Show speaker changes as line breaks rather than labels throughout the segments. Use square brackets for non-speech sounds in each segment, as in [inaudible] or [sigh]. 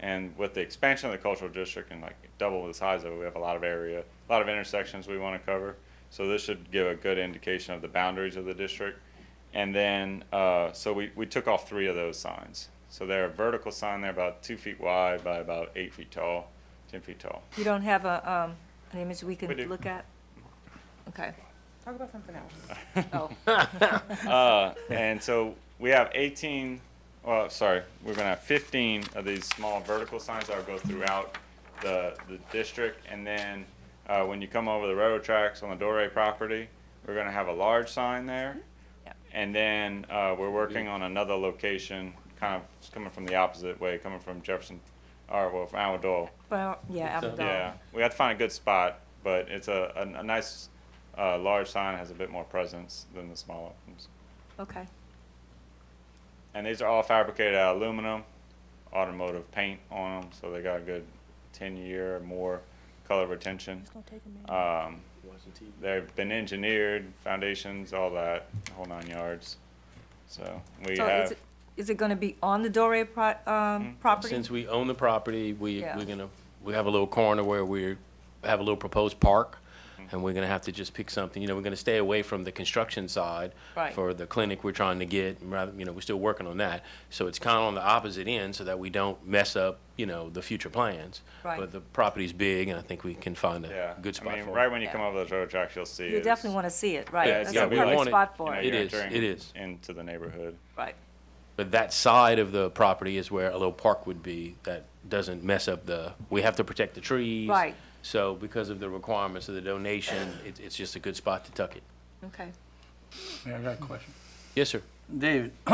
And with the expansion of the cultural district and like double the size of it, we have a lot of area, a lot of intersections we want to cover. So this should give a good indication of the boundaries of the district. And then, uh, so we, we took off three of those signs. So they're a vertical sign, they're about two feet wide by about eight feet tall, 10 feet tall.
You don't have a, um, an image we
We
could
do.
look at?
[laughs]
Okay,
Talk about something else.
[laughs]
oh,
Uh, and so we have 18, well, sorry, we're gonna have 15 of these small vertical signs that'll go throughout the, the district. And then, uh, when you come over the railroad tracks on the Dore property, we're gonna have a large sign there.
Yep.
And then, uh, we're working on another location, kind of coming from the opposite way, coming from Jefferson, or well, from Alamo
well, yeah,
So-
Amador.
yeah, we have to find a good spot, but it's a, a, a nice, uh, large sign has a bit more presence than the smaller ones.
Okay,
And these are all fabricated out of aluminum, automotive paint on them, so they got a good ten-year or more color retention.
It's gonna take a minute.
Um,
Watching TV.
they've been engineered, foundations, all that, whole nine yards. So we
so is
have,
it, is it gonna be on the Dore pro, um, property?
Since we own the property, we,
Yeah.
we're gonna, we have a little corner where we have a little proposed park,
Mm-hmm.
and we're gonna have to just pick something, you know, we're gonna stay away from the construction side
Right.
for the clinic we're trying to get, and rather, you know, we're still working on that. So it's kinda on the opposite end, so that we don't mess up, you know, the future plans.
Right.
But the property's big, and I think we can find
yeah,
a good
I
spot
mean,
for
right
it.
when you
Yeah.
come over those road tracks, you'll see.
You
it's-
definitely wanna see it, right,
Yeah,
that's
yeah,
a
we
perfect
want it.
spot
you
for
know,
it,
you're
is,
entering
it is.
Into the neighborhood.
right,
But that side of the property is where a little park would be that doesn't mess up the, we have to protect the trees.
Right.
So because of the requirements of the donation, it, it's just a good spot to tuck it.
okay.
Mayor, I got a question.
Yes, sir.
David, [clears throat]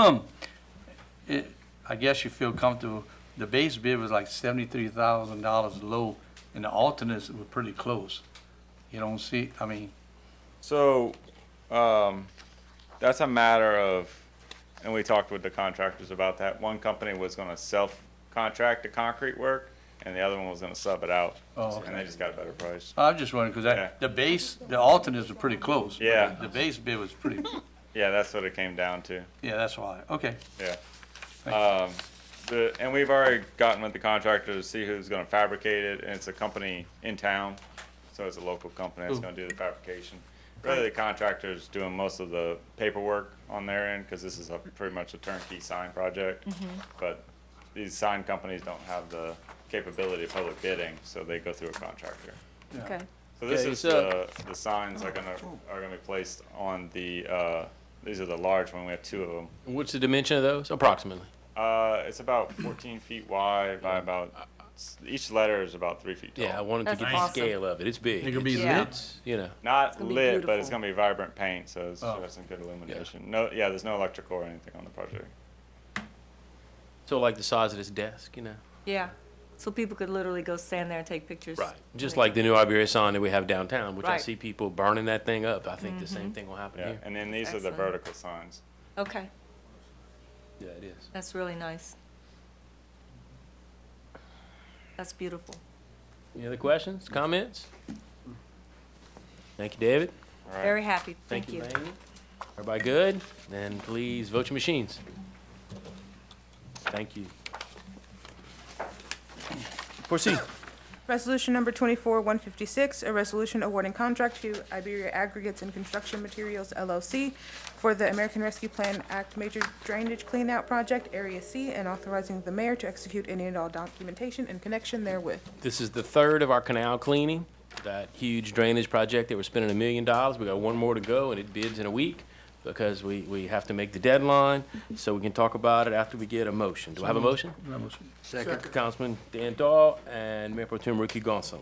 it, I guess you feel comfortable, the base bid was like seventy-three thousand dollars low, and the alternates were pretty close. You don't see, I mean,
So, um, that's a matter of, and we talked with the contractors about that. One company was gonna self-contract the concrete work, and the other one was gonna sub it out.
Oh,
And they
okay.
just got a better price.
I'm just wondering, because
Yeah.
that, the base, the alternates were pretty close. but
Yeah.
The the base bid was pretty,
Yeah, that's what it came down to,
yeah, that's why, okay.
yeah. Um, the, and we've already gotten with the contractor to see who's gonna fabricate it, and it's a company in town, so it's a local company that's
Ooh.
gonna do the fabrication. Really, the contractor's doing most of the paperwork on their end, cause this is a, pretty much a turnkey sign project. But these sign companies don't have the capability of public bidding, so they go through a contractor.
Yeah.
Okay,
So this
Yeah,
is
it's,
the,
uh,
the signs are gonna, are gonna be placed on the, uh, these are the large one, we have two of them.
What's the dimension of those approximately?
Uh, it's about 14 feet wide by about each letter is about three feet tall.
Yeah, I wanted to
That's
get the
awesome.
scale of it. It's big.
It could be
Yeah.
lit,
It's, You know,
Not
gonna be
lit, but it's
beautiful.
gonna be vibrant paint, so it's
Oh.
got some good illumination. No, yeah, there's no electrical or anything on the project.
so like the size of this desk, you know?
yeah, so people could literally go stand there and take pictures.
Just like the new Iberia sign that we have downtown, which I
Right. Mm-hmm.
see people burning that thing up. I think the same thing will happen
Yeah,
here.
and then these are the
Excellent.
vertical signs.
Okay,
Yeah, it is.
that's really nice. That's beautiful.
Any other questions, comments? Thank you, David.
All right.
Very happy, thank you.
Lainey. Everybody good? Then please vote your machines. Thank you. Proceed.
Resolution number twenty-four, one fifty-six, a resolution awarding contract to Iberia Aggregates and Construction Materials LLC for the American Rescue Plan Act Major Drainage Cleanout Project, Area C, and authorizing the mayor to execute any and all documentation in connection therewith.
This is the third of our canal cleaning, that huge drainage project that we're spending a million dollars. We got one more to go and it bids in a week because we, we have to make the deadline. So we can talk about it after we get a motion. Do I have a motion? Second. Councilman Dan Dahl and Mayor Pro Tem Ricky Gonsalas.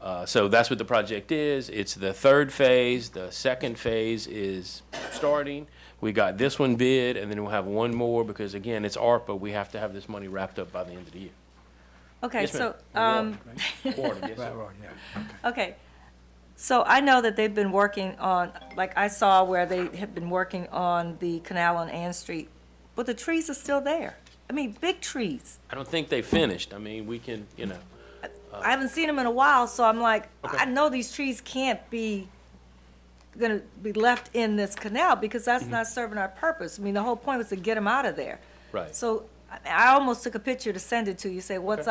Uh, So that's what the project is. It's the third phase. The second phase is starting. We got this one bid, and then we'll have one more, because again, it's ARPA. We have to have this money wrapped up by the end of the year.
Okay,
Yes, ma'am.
so, um,
Warren, yes, sir.
Okay, so I know that they've been working on, like I saw where they had been working on the canal on Ann Street, but the trees are still there. I mean, big trees.
I don't think they finished. I mean, we can, you know,
I haven't seen them in a while, so I'm like, I know these trees can't be, gonna be left in this canal because that's not serving our purpose. I mean, the whole point was to get them out of there.
Right.
So I I almost took a picture to send it to you, say, what's up?